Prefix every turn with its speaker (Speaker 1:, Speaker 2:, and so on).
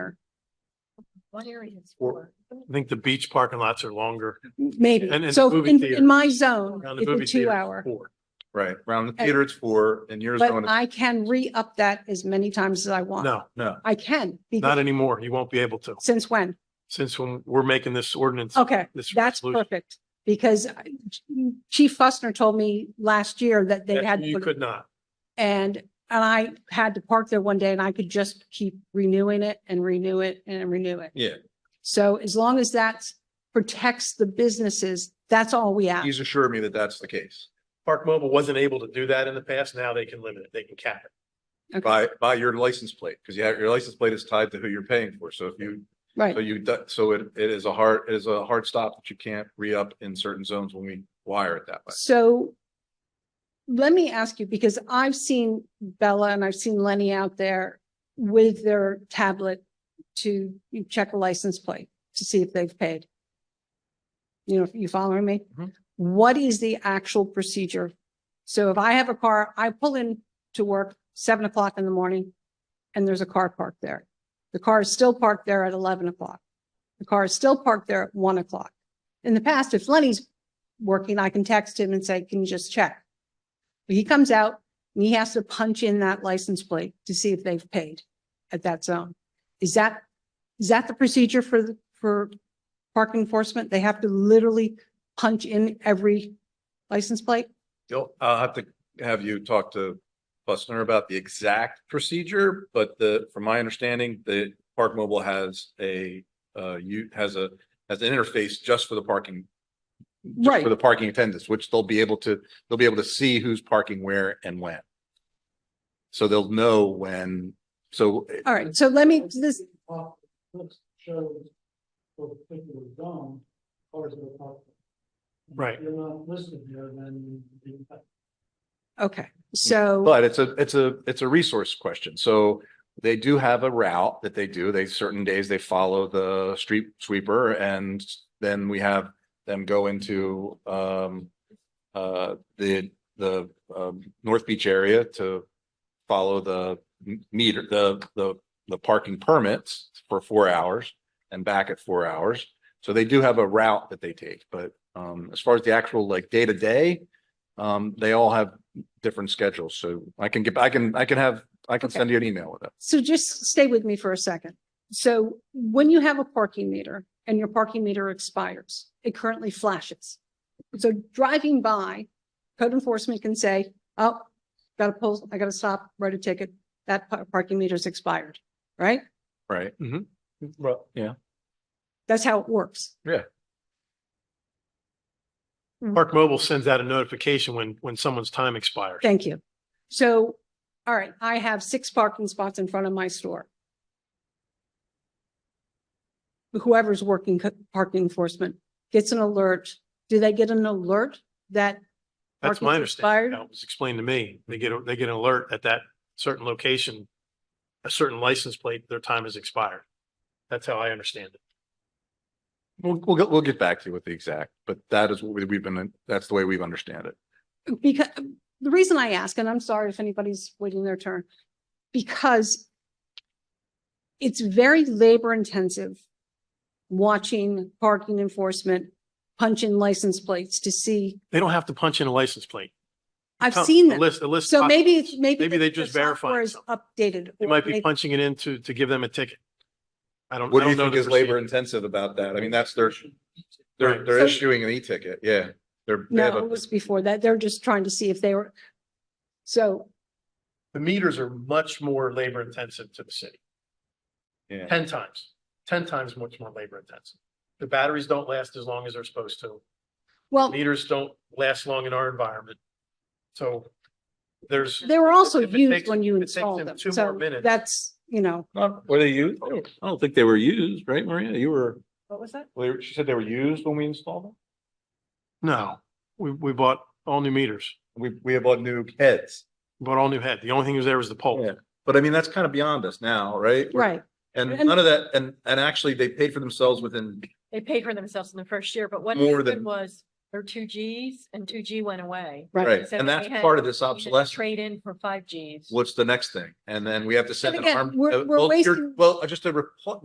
Speaker 1: What area is
Speaker 2: Or-
Speaker 1: for?
Speaker 2: I think the beach parking lots are longer. And-
Speaker 3: Maybe.
Speaker 2: and
Speaker 3: So
Speaker 2: movie
Speaker 3: in,
Speaker 2: theater.
Speaker 3: in my zone,
Speaker 2: Around the movie
Speaker 3: Oh, it's a two
Speaker 2: theater,
Speaker 3: hour.
Speaker 2: four.
Speaker 4: Right, around the theater it's four and yours
Speaker 3: But
Speaker 4: going,
Speaker 3: I can re-up that as many times as I want.
Speaker 2: No,
Speaker 4: no.
Speaker 3: I can.
Speaker 2: not
Speaker 3: because-
Speaker 2: anymore. You won't be able to,
Speaker 3: Since when?
Speaker 2: since when we're making this ordinance.
Speaker 3: Okay,
Speaker 2: this
Speaker 3: Oh, that's
Speaker 2: resolution,
Speaker 3: perfect. Because I- Chief Fussner told me last year that they
Speaker 2: that
Speaker 3: had.
Speaker 2: You could not.
Speaker 3: And, and I had to park there one day and I could just keep renewing it and renew it and renew it.
Speaker 4: Yeah.
Speaker 3: So as long as that protects the businesses, that's all we ask.
Speaker 4: He's assured me that that's the case
Speaker 2: Park Mobile wasn't able to do that in the past. Now they can limit it. They can cap it.
Speaker 4: by, by your license plate, because you have, your license plate is tied to who you're paying for. So if you, so
Speaker 3: Right.
Speaker 4: you, do- so it, it is a hard, it is a hard stop that you can't re-up in certain zones when we wire it that way.
Speaker 3: So let me ask you, because I've seen Bella and I've seen Lenny out there with their tablet to check a license plate to see if they've paid. You know, you following me?
Speaker 4: Mhm.
Speaker 3: What is the actual procedure? So if I have a car, I pull in to work seven o'clock in the morning and there's a car parked there. The car is still parked there at eleven o'clock. The car is still parked there at one o'clock. In the past, if Lenny's working, I can text him and say, can you just check? But He comes out and he has to punch in that license plate to see if they've paid at that zone. Is that, is that the procedure for, the- for park enforcement? They have to literally punch in every license plate?
Speaker 4: You'll, I'll have to have you talk to Bussner about the exact procedure, but the, from my understanding, the Park Mobile has a, uh, you, has a, has an interface just for the parking. just
Speaker 3: Right.
Speaker 4: For the parking attendants, which they'll be able to, they'll be able to see who's parking where and when. So they'll know when, so eh,
Speaker 3: All right, so let me, this,
Speaker 5: Shows for the particular zone, cars that are parked.
Speaker 2: Right.
Speaker 5: If you're not listed there, then you-
Speaker 3: okay, so,
Speaker 4: But it's a, it's a, it's a resource question. So they do have a route that they do. They, certain days they follow the street sweeper and then we have them go into, um, uh, the, the, um, North Beach area to follow the m- meter, the, the, the parking permits for four hours and back at four hours. So they do have a route that they take, but, um, as far as the actual like day to day, um, they all have different schedules, so I can get, I can, I can have, I can
Speaker 3: Okay.
Speaker 4: send you an email with it.
Speaker 3: so just stay with me for a second. So when you have a parking meter and your parking meter expires, it currently flashes. So driving by, code enforcement can say, oh, gotta pull, I gotta stop, write a ticket, that pa- parking meter's expired, right?
Speaker 4: Right.
Speaker 2: Right.
Speaker 3: That's how it works.
Speaker 2: Park Mobile sends out a notification when, when someone's time expires.
Speaker 3: Thank you. So, all right, I have six parking spots in front of my store. Whoever's working co- parking enforcement gets an alert. Do they get an alert that
Speaker 2: That's
Speaker 3: Parking
Speaker 2: my
Speaker 3: expired?
Speaker 2: understanding. That was explained to me. They get, a- they get an alert at that certain location, a certain license plate, their time has expired. That's how I understand it.
Speaker 4: We'll, we'll, get- we'll get back to you with the exact, but that is what we- we've been, that's the way we've understand it.
Speaker 3: because the reason I ask, and I'm sorry if anybody's waiting their turn, because it's very labor intensive watching parking enforcement punch in license plates to see.
Speaker 2: They don't have to punch in a license plate.
Speaker 3: I've
Speaker 2: Come-
Speaker 3: seen
Speaker 2: A
Speaker 3: that.
Speaker 2: list, a list.
Speaker 3: So
Speaker 2: pop-
Speaker 3: maybe, it's- maybe.
Speaker 2: Maybe
Speaker 3: the-
Speaker 2: they
Speaker 3: the
Speaker 2: just
Speaker 3: software
Speaker 2: verify
Speaker 3: is Updated.
Speaker 2: They
Speaker 3: or
Speaker 2: might be
Speaker 3: maybe-
Speaker 2: punching it in to, to give them a ticket. I don't.
Speaker 4: What
Speaker 2: I
Speaker 4: do you
Speaker 2: don't know
Speaker 4: think
Speaker 2: the
Speaker 4: is labor
Speaker 2: procedure.
Speaker 4: intensive about that? I mean, that's their, they're,
Speaker 2: Right.
Speaker 4: they're
Speaker 3: So-
Speaker 4: issuing an e-ticket, yeah. They're, they have
Speaker 3: No,
Speaker 4: a-
Speaker 3: it was before that. They're just trying to see if they were. So,
Speaker 2: The meters are much more labor intensive to the city.
Speaker 4: yeah.
Speaker 2: ten times, ten times much more labor intensive. The batteries don't last as long as they're supposed to.
Speaker 3: well,
Speaker 2: Meters don't last long in our environment. So there's,
Speaker 3: they were also
Speaker 2: If it
Speaker 3: used
Speaker 2: takes-
Speaker 3: when you
Speaker 2: if it takes
Speaker 3: installed
Speaker 2: them
Speaker 3: them.
Speaker 2: two more
Speaker 3: So
Speaker 2: minutes-
Speaker 3: that's, you know,
Speaker 4: Not, were they used?
Speaker 6: I don't think they were used, right, Maria? You were,
Speaker 3: what was that?
Speaker 4: Well, She said they were used when we installed them?
Speaker 2: no, we, we bought all new meters,
Speaker 4: We, we have bought new heads,
Speaker 2: bought all new head. The only thing that was there was the pole.
Speaker 4: Yeah. but I mean, that's kind of beyond us now, right?
Speaker 3: Right.
Speaker 4: And
Speaker 3: And-
Speaker 4: none of that, and, and actually they paid for themselves within,
Speaker 1: They paid for themselves in the first year, but what
Speaker 4: More
Speaker 1: happened
Speaker 4: than-
Speaker 1: was there were two Gs and two G went away.
Speaker 3: Right.
Speaker 4: right?
Speaker 1: So
Speaker 4: And that's
Speaker 1: they had-
Speaker 4: part of this
Speaker 1: we had to
Speaker 4: obsolescence.
Speaker 1: Trade in for five Gs.
Speaker 4: what's the next thing? And then we have to send an
Speaker 3: again,
Speaker 4: arm.
Speaker 3: we're-
Speaker 4: uh,
Speaker 3: we're
Speaker 4: well, you're-
Speaker 3: wasting-
Speaker 4: Well, just a report,